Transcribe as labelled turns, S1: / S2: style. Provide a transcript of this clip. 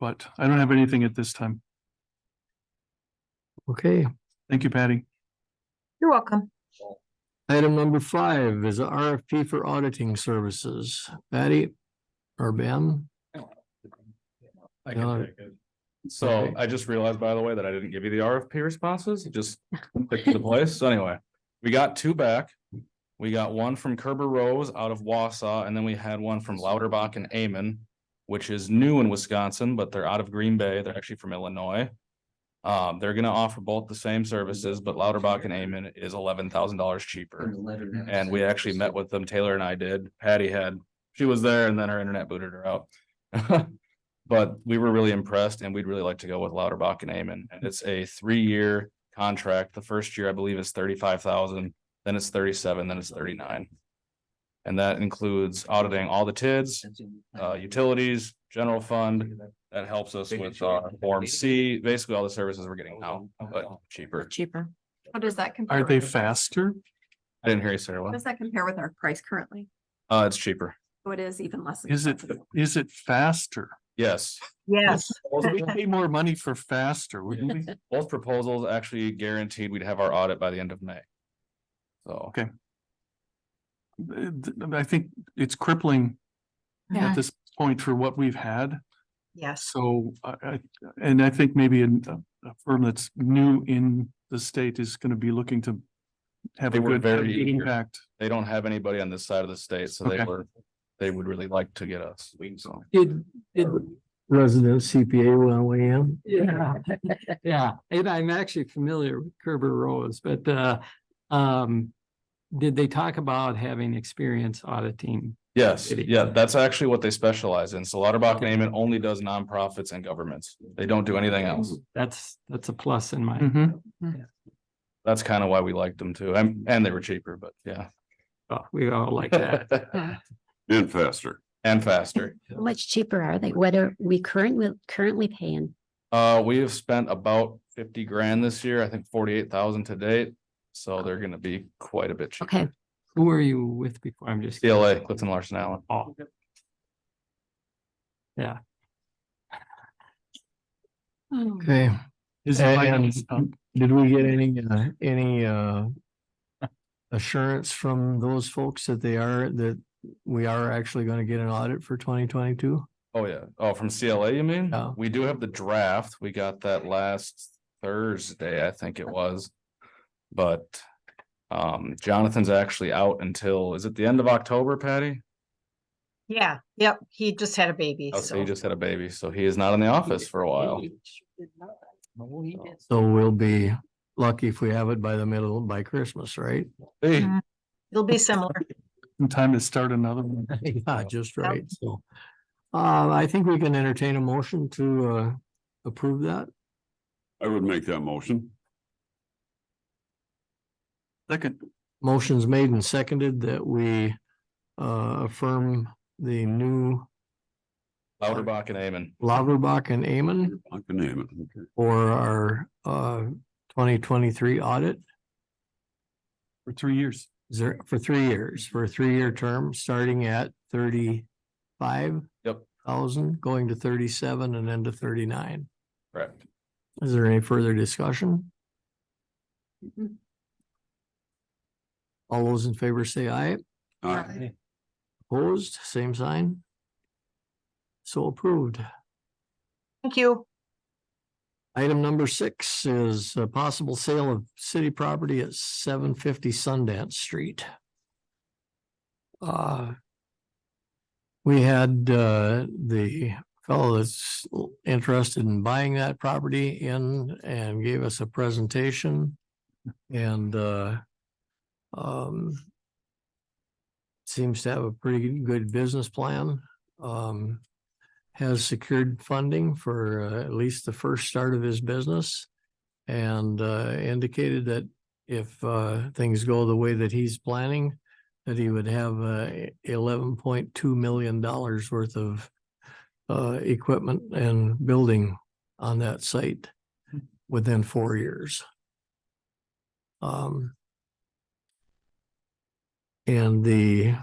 S1: but I don't have anything at this time.
S2: Okay,
S1: Thank you, Patty.
S3: You're welcome.
S2: item number five is a RFP for auditing services. Patty or Ben?
S4: I
S2: Yeah.
S4: can take it. So
S2: Okay.
S4: I just realized, by the way, that I didn't give you the RFP responses, It just clicked into place. So anyway, we got two back. We got one from Kerber Rose out of Wausau, and then we had one from Louderbach and Amen, which is new in Wisconsin, but they're out of Green Bay. They're actually from Illinois. Um, they're gonna offer both the same services, but Louderbach and Amen is eleven thousand dollars cheaper. And we actually met with them. Taylor and I did. Patty had, she was there and then her internet booted her out. But we were really impressed and we'd really like to go with Lauterbach and Amen. And it's a three-year contract. The first year, I believe, is thirty-five thousand, then it's thirty-seven, then it's thirty-nine. And that includes auditing all the TIDs, uh, utilities, general fund. That helps us with our Form C, basically all the services we're getting now, but cheaper.
S5: Cheaper.
S3: How does that compare?
S1: Are they
S3: with-
S1: faster?
S4: I didn't hear you, Sarah.
S3: How
S4: What?
S3: does that compare with our price currently?
S4: Uh, it's cheaper.
S3: So it is even less.
S1: Is it,
S3: expensive.
S1: is it faster?
S4: Yes.
S3: Yes.
S1: We pay more money for faster, wouldn't we?
S4: Both proposals actually guaranteed we'd have our audit by the end of May. So.
S1: Uh, th- I think it's crippling
S5: Yeah.
S1: at this point for what we've had.
S3: Yes.
S1: So I, I, and I think maybe an- a, a firm that's new in the state is gonna be looking to have
S4: They
S1: a
S4: were
S1: good have a
S4: very
S1: good
S4: eager.
S1: impact.
S4: they don't have anybody on this side of the state, so they
S1: Okay.
S4: were, they would really like to get us. So
S2: Did, did resident CPA want to weigh in? Yeah, yeah, and I'm actually familiar with Kerber Rose, but, uh, um, did they talk about having experience auditing?
S4: Yes,
S2: City.
S4: yeah, that's actually what they specialize in. So Lauterbach and Amen only does nonprofits and governments. They don't do anything else. Mm-hmm.
S2: That's, that's a plus in my,
S1: Mhm.
S4: That's kind of why we liked them too. And, and they were cheaper, but yeah.
S2: oh, we all like that.
S6: And faster.
S4: And faster.
S5: How much cheaper are they? What are we currently, currently paying?
S4: Uh, we have spent about fifty grand this year, I think forty-eight thousand to date. So they're gonna be quite a bit cheaper.
S5: Okay,
S2: Who are you with before? I'm just.
S4: CLA, Clifton Larson Allen.
S2: Oh. Yeah. Okay,
S1: Is it like-
S2: And- did we get any, uh, any, uh, assurance from those folks that they are, that we are actually gonna get an audit for twenty twenty-two?
S4: Oh, yeah. Oh, from CLA, you mean?
S2: Yeah.
S4: We do have the draft. We got that last Thursday, I think it was. But um, Jonathan's actually out until, is it the end of October, Patty?
S7: Yeah, yep, he just had a baby,
S4: Oh, so he
S7: so,
S4: just had a baby, so he is not in the office for a while.
S2: So we'll be lucky if we have it by the middle, by Christmas, right?
S7: Mm-hmm.
S4: Hey,
S3: Mhm.
S7: it'll be similar.
S1: in time to start another one?
S2: Yeah, just right, so. Uh, I think we can entertain a motion to, uh, approve that.
S6: I would make that motion.
S1: Second,
S2: Motion's made and seconded that we, uh, affirm the new
S4: Lauterbach and Amen.
S2: Lauterbach and Amen.
S6: I can name it. Okay.
S2: for our uh twenty twenty-three audit.
S1: for three years.
S2: Is there for three years, for a three-year term, starting at thirty-five?
S4: Yep.
S2: Thousand, going to thirty-seven and then to thirty-nine.
S4: Correct.
S2: Is there any further discussion?
S3: Mhm.
S2: All those in favor say aye.
S6: Aye.
S2: Opposed, same sign. So approved.
S7: Thank you.
S2: Item number six is a possible sale of city property at seven fifty Sundance Street. Uh, We had uh, the fellow that's interested in buying that property in and gave us a presentation and uh, um, seems to have a pretty good business plan. Um, has secured funding for uh, at least the first start of his business. And uh, indicated that if uh, things go the way that he's planning, that he would have uh, eleven point two million dollars worth of uh, equipment and building on that site within four years. Um, And the